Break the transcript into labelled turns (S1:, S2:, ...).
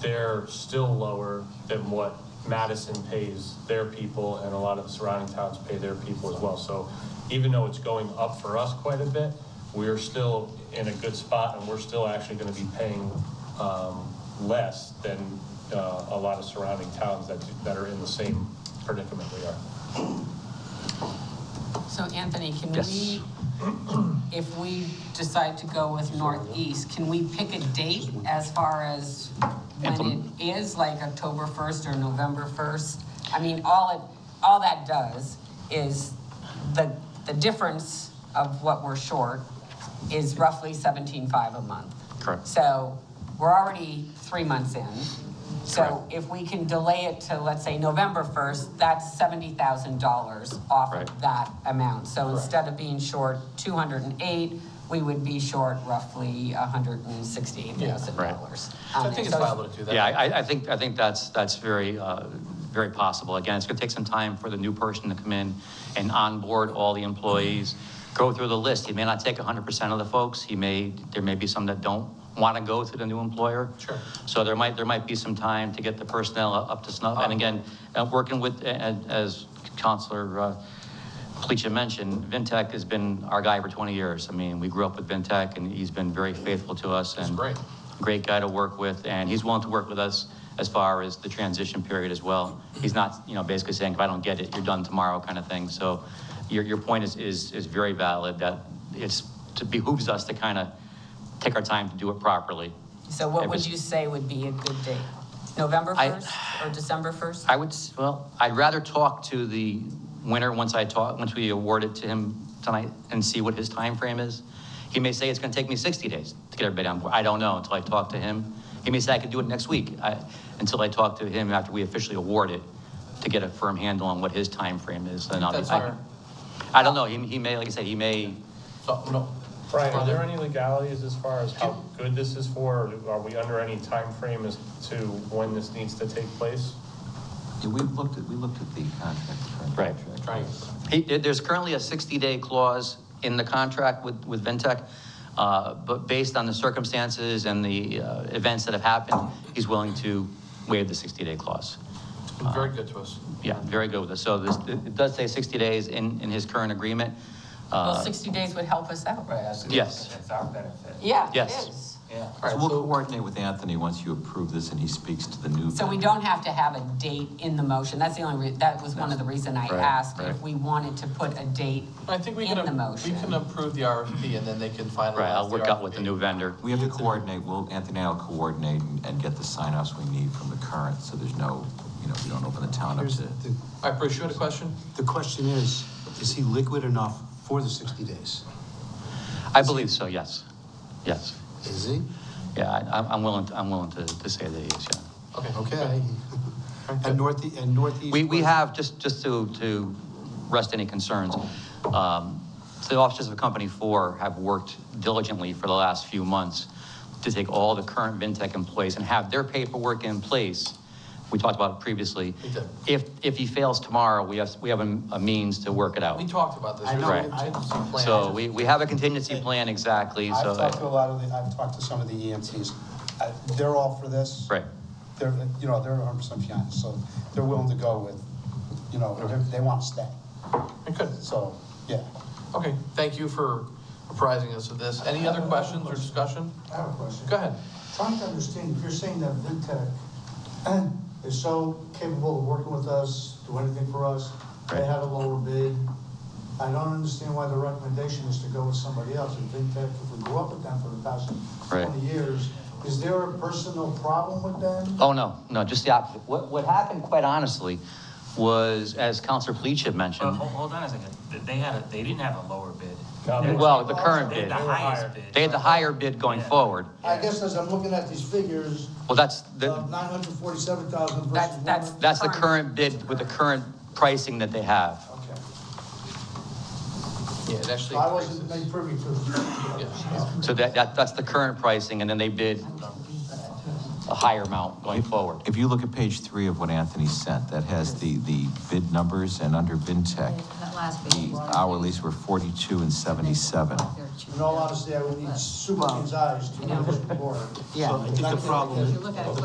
S1: they're still lower than what Madison pays their people and a lot of the surrounding towns pay their people as well. So even though it's going up for us quite a bit, we're still in a good spot and we're still actually going to be paying um, less than uh, a lot of surrounding towns that, that are in the same predicament we are.
S2: So Anthony, can
S3: Yes.
S2: we, if we decide to go with Northeast, can we pick a date as far as when
S3: Implement-
S2: it is, like October 1st or November 1st? I mean, all it, all that does is the, the difference of what we're short is roughly 17.5 a month.
S3: Correct.
S2: So we're already three months in. So if we can delay it to, let's say, November 1st, that's $70,000 off
S3: Right.
S2: of that amount. So instead of being short 208, we would be short roughly
S3: Right.
S2: $168,000.
S4: I think it's viable to do that.
S3: Yeah, I, I- I think, I think that's, that's very, uh, very possible. Again, it's going to take some time for the new person to come in and onboard all the employees, go through the list. He may not take 100% of the folks. He may, there may be some that don't want to go to the new employer.
S4: Sure.
S3: So there might, there might be some time to get the personnel up to snuff. And again, uh, working with, a- a- as Counselor uh, Pleacha mentioned, Vintech has been our guy for 20 years. I mean, we grew up with Vintech, and he's been very faithful to us. and
S4: great.
S3: Great guy to work with, and he's willing to work with us as far as the transition period as well. He's not, you know, basically saying, if I don't get it, you're done tomorrow kind of thing. So your, your point is, is, is very valid, that it's, it behooves us to kind of take our time to do it properly.
S2: So what would
S3: Every-
S2: you say would be a good date? November
S3: I- Uh,
S2: 1st or December 1st?
S3: I would, s- well, I'd rather talk to the winner once I talk, once we award it to him tonight and see what his time frame is. He may say it's gonna take me sixty days to get everybody on board. I don't know until I talk to him. He may say I could do it next week, I, until I talk to him after we officially award it to get a firm handle on what his time frame is. and I'll be-
S4: That's our,
S3: I don't know, he, he may, like I said, he may,
S4: so, no.
S1: Brian, are there any legalities as far as how good this is for? or Are we under any time frame as to when this needs to take place?
S5: Yeah, we've looked at, we looked at the contract. the current
S3: Right.
S5: contract.
S4: Trying,
S3: He, there- there's currently a 60-day clause in the contract with, with Ventec, uh, but based on the circumstances and the uh, events that have happened, he's willing to waive the 60-day clause.
S4: very good to us.
S3: Yeah, very good with us. So this, it does say 60 days in, in his current agreement.
S2: Well,
S3: Uh,
S2: 60 days would help us out, right?
S3: Yes.
S6: It's our benefit.
S2: Yeah, it
S3: Yes.
S2: is.
S4: All
S5: So
S4: right,
S5: we'll
S4: so,
S5: coordinate with Anthony once you approve this and he speaks to the new.
S2: So we don't have to have a date in the motion. That's the only, re- that was one of the reason I
S3: Right,
S2: asked if
S3: right.
S2: we wanted to put a date
S4: I think we
S2: in
S4: can,
S2: the
S4: we
S2: motion.
S4: can approve the RFP and then they can finalize.
S3: Right, I'll
S4: the
S3: work out with the
S4: RFP.
S3: new vendor.
S5: We have to coordinate, well, Anthony and I will coordinate and, and get the sign-offs we need from the current, so there's no, you know, we don't open the town up
S7: Here's
S5: to.
S7: the,
S4: All right, Bruce, you had a question?
S7: the question is, is he liquid enough for the 60 days?
S3: I believe so, yes. Yes.
S7: Is he?
S3: Yeah, I, I'm- I'm willing, to- I'm willing to, to say that he is, yeah.
S4: Okay.
S7: Okay. And northeast, and northeast.
S3: We, we have, just, just to, to rest any concerns, um, the officers of Company Four have worked diligently for the last few months to take all the current Vintech employees and have their paperwork in place. We talked about it previously.
S4: We did.
S3: If, if he fails tomorrow, we have, we have a a means to work it out.
S4: We talked about this.
S7: I know,
S4: There's a
S3: I-
S4: contingency plan.
S3: So we, we have a contingency plan, exactly,
S7: I've talked to a
S3: so,
S7: lot of the, I've talked to some of the E EMTs. Uh, They're all for this.
S3: Right.
S7: They're, you know, they're 100% behind, us, so they're willing to go with, you know, they- they want to stay.
S4: Okay,
S7: So, yeah.
S4: okay, thank you for apprising us of this. Any other questions or discussion?
S8: I have a question.
S4: Go ahead.
S8: Trying to understand, if you're saying that VinTech is so capable of working with us, do anything for us, they
S3: Right.
S8: had a lower bid. I don't understand why the recommendation is to go with somebody else, and VinTech, if we grew up with them for the past
S3: Right.
S8: twenty years, is there a personal problem with them?
S3: oh, no, no, just the opposite. What, what happened, quite honestly, was, as Counselor Pleach had
S6: But
S3: mentioned,
S6: hold, hold on a second, Th- they had a, they didn't have a lower bid.
S1: No,
S6: They-
S3: well, the current
S6: They
S3: bid.
S6: had the
S1: They were higher.
S6: highest bid.
S3: They had the higher bid going
S6: Yeah.
S3: forward.
S8: I guess as I'm looking at these figures,
S3: Well, that's,
S8: of
S3: the
S8: nine hundred forty-seven thousand versus
S2: That's-
S8: one
S2: that's-
S8: hundred.
S3: that's the current bid with the current pricing that they have.
S8: Okay,
S4: Yeah, it
S8: So
S4: actually.
S8: I wasn't
S4: increases.
S8: made privy to. it.
S4: Yeah.
S3: So that, that, that's the current pricing, and then they bid a higher amount going forward.
S5: If you look at page three of what Anthony sent, that has the, the bid numbers and under Vintech,
S9: That last page.
S5: the hourlies were forty-two and seventy-seven.
S8: In all honesty, I would need Superman's eyes to move this board.
S9: Yeah.
S7: So I think the problem
S9: If you look at it